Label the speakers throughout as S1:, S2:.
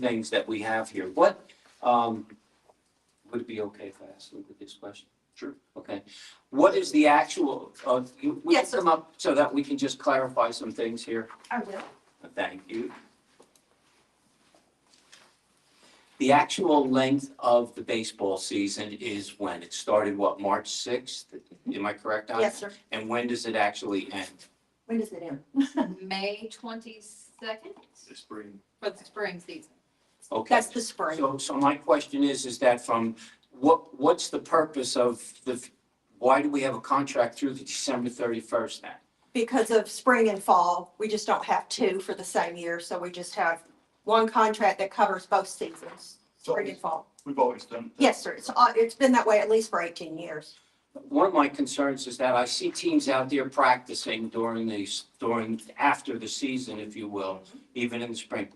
S1: things that we have here. What, um, would it be okay if I asked Luke this question?
S2: Sure.
S1: Okay. What is the actual, uh, you, we can
S3: Yes, sir.
S1: come up so that we can just clarify some things here?
S3: I will.
S1: Thank you. The actual length of the baseball season is when? It started, what, March 6th? Am I correct on?
S3: Yes, sir.
S1: And when does it actually end?
S3: When does it end?
S4: May twenty-second
S2: the spring.
S4: for the spring season.
S1: Okay.
S3: That's the spring.
S1: So, so my question is, is that from, what, what's the purpose of the, why do we have a contract through the December 31st then?
S3: Because of spring and fall, we just don't have two for the same year, so we just have one contract that covers both seasons,
S2: So
S3: spring and fall.
S2: we've always done. that.
S3: Yes, sir. It's, uh, it's been that way at least for eighteen years.
S1: One of my concerns is that I see teams out there practicing during the, during, after the season, if you will, even in the spring.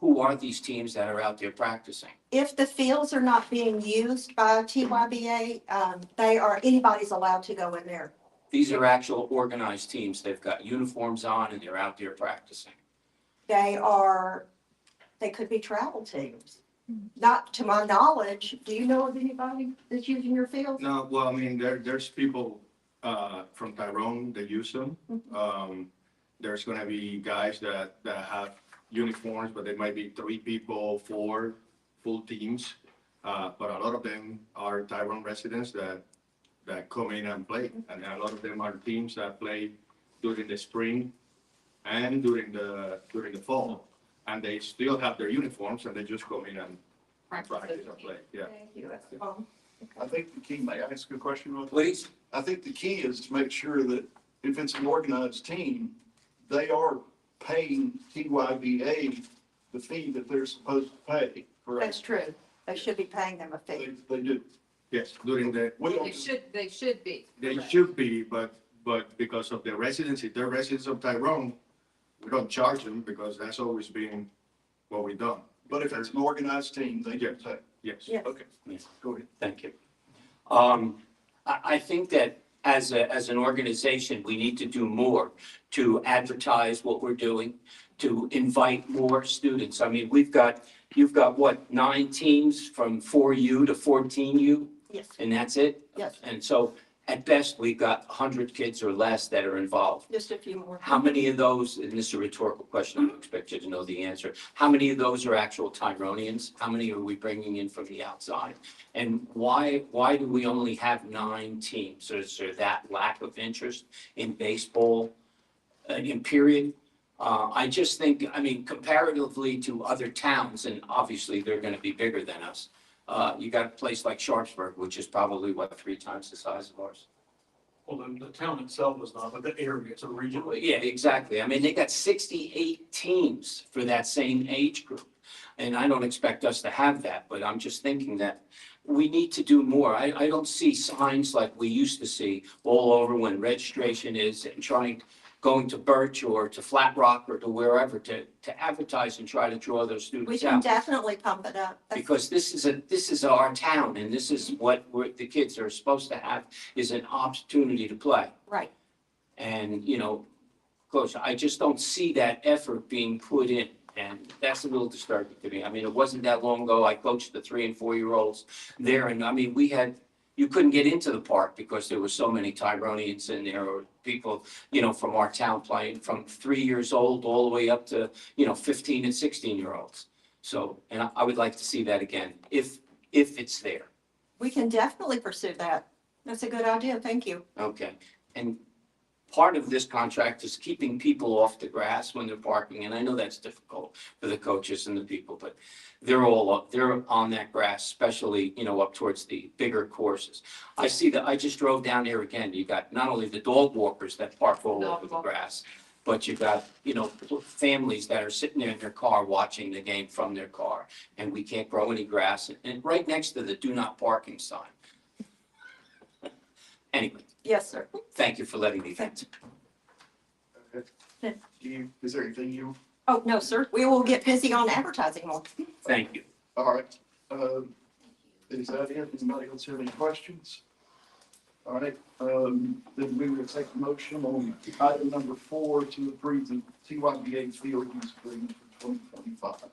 S1: Who are these teams that are out there practicing?
S3: If the fields are not being used by TYBA, um, they are, anybody's allowed to go in there.
S1: These are actual organized teams. They've got uniforms on and they're out there practicing.
S3: They are, they could be travel teams. Not to my knowledge. Do you know of anybody that's using your field?
S2: No, well, I mean, there, there's people, uh, from Tyrone that use them.
S3: Mhm.
S2: Um, there's gonna be guys that, that have uniforms, but they might be three people, four full teams. Uh, but a lot of them are Tyrone residents that, that come in and play. And a lot of them are teams that play during the spring and during the, during the fall. And they still have their uniforms and they just come in and practice and play, yeah.
S3: Thank you. That's the phone.
S5: I think the key, may I ask a question real quick?
S1: Please,
S5: I think the key is to make sure that if it's an organized team, they are paying TYBA the fee that they're supposed to pay,
S3: That's
S5: correct?
S3: true. They should be paying them a
S5: They,
S3: fee.
S5: they do.
S2: Yes, during the,
S5: We
S4: They
S5: don't,
S4: should, they should be.
S2: They
S4: correct.
S2: should be, but, but because of their residency, they're residents of Tyrone, we don't charge them because that's always been what we done.
S5: but if it's an organized team, they do pay.
S2: Yes.
S3: Yes.
S5: Okay.
S1: Yes.
S5: Go ahead.
S1: thank you. Um, I, I think that as a, as an organization, we need to do more to advertise what we're doing, to invite more students. I mean, we've got, you've got what, nine teams from four U to fourteen U,
S3: Yes,
S1: and that's it?
S3: yes,
S1: And so at best, we've got hundred kids or less that are involved.
S3: just a few more.
S1: How many of those, and this is a rhetorical question, I don't expect you to know the answer. How many of those are actual Tyroneans? How many are we bringing in from the outside? And why, why do we only have nine teams? Is there that lack of interest in baseball uh, in period? Uh, I just think, I mean, comparatively to other towns, and obviously they're going to be bigger than us. Uh, you got a place like Sharpsburg, which is probably what, three times the size of ours?
S6: Well, the, the town itself was not, but the area, it's a regional.
S1: Yeah, exactly. I mean, they got sixty-eight teams for that same age group. And I don't expect us to have that, but I'm just thinking that we need to do more. I, I don't see signs like we used to see all over when registration is and trying, going to Birch or to Flat Rock or to wherever to, to advertise and try to draw those
S3: We
S1: students
S3: can
S1: out.
S3: definitely pump it up. That's-
S1: Because this is a, this is our town and this is what we're, the kids are supposed to have is an opportunity to play.
S3: Right.
S1: And, you know, coach, I just don't see that effort being put in. And that's a little disturbing to me. I mean, it wasn't that long ago, I coached the three and four year olds there. And I mean, we had, you couldn't get into the park because there were so many Tyroneans in there or people, you know, from our town playing from three years old all the way up to, you know, fifteen and sixteen year olds. So, and I, I would like to see that again, if, if it's there.
S3: We can definitely pursue that. That's a good idea. Thank you.
S1: Okay, and part of this contract is keeping people off the grass when they're parking, and I know that's difficult for the coaches and the people, but they're all, up they're on that grass, especially, you know, up towards the bigger courses. I see that, I just drove down here again, you got not only the dog walkers that park all over the grass, but you got, you know, families that are sitting there in their car watching the game from their car, and we can't grow any grass, and- and right next to the do not parking sign. Anyway,
S3: Yes, sir.
S1: Thank you for letting me vent.
S3: Yeah.
S5: Do you, is there anything you,
S3: Oh, no, sir. We will get busy on advertising more.
S1: Thank you.
S5: all right, um, is that it? Anybody else have any questions? All right, um, then we will take a motion on item number four to approve the TYBA field use agreement for twenty twenty-five.